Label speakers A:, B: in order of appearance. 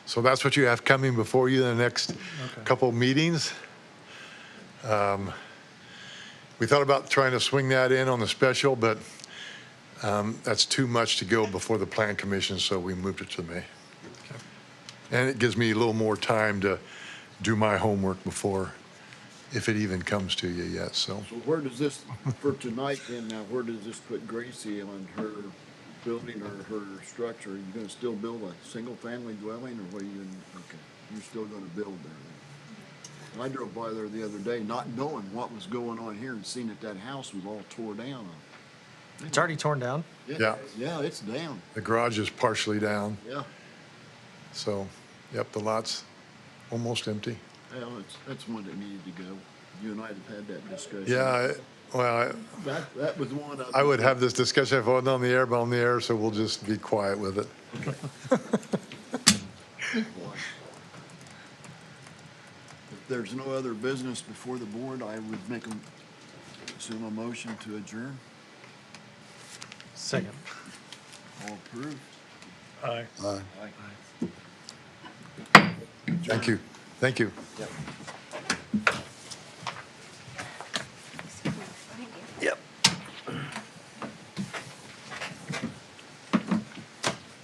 A: So that's what you have coming before you in the next couple meetings. Um, We thought about trying to swing that in on the special, but um, that's too much to go before the plan commission, so we moved it to May. And it gives me a little more time to do my homework before, if it even comes to you yet, so.
B: So where does this, for tonight then, now where does this put Gracie on her building or her structure? Are you gonna still build a single-family dwelling or what are you, gonna- okay, you're still gonna build there then? I drove by there the other day not knowing what was going on here and seeing that that house was all tore down.
C: It's already torn down.
A: Yeah.
B: Yeah, it's down,
A: The garage is partially down,
B: yeah.
A: so, yep, the lot's almost empty.
B: Well, it's, that's one that needed to go. You and I have had that discussion.
A: Yeah, I- well,
B: That, that was one of.
A: I I would have this discussion if I wasn't on the air, but I'm on the air, so we'll just be quiet with it.
B: If there's no other business before the board, I would make a, assume a motion to adjourn.
C: Second.
B: All approved?
C: Aye.
B: Aye.
A: Thank you, thank you.
B: Yep.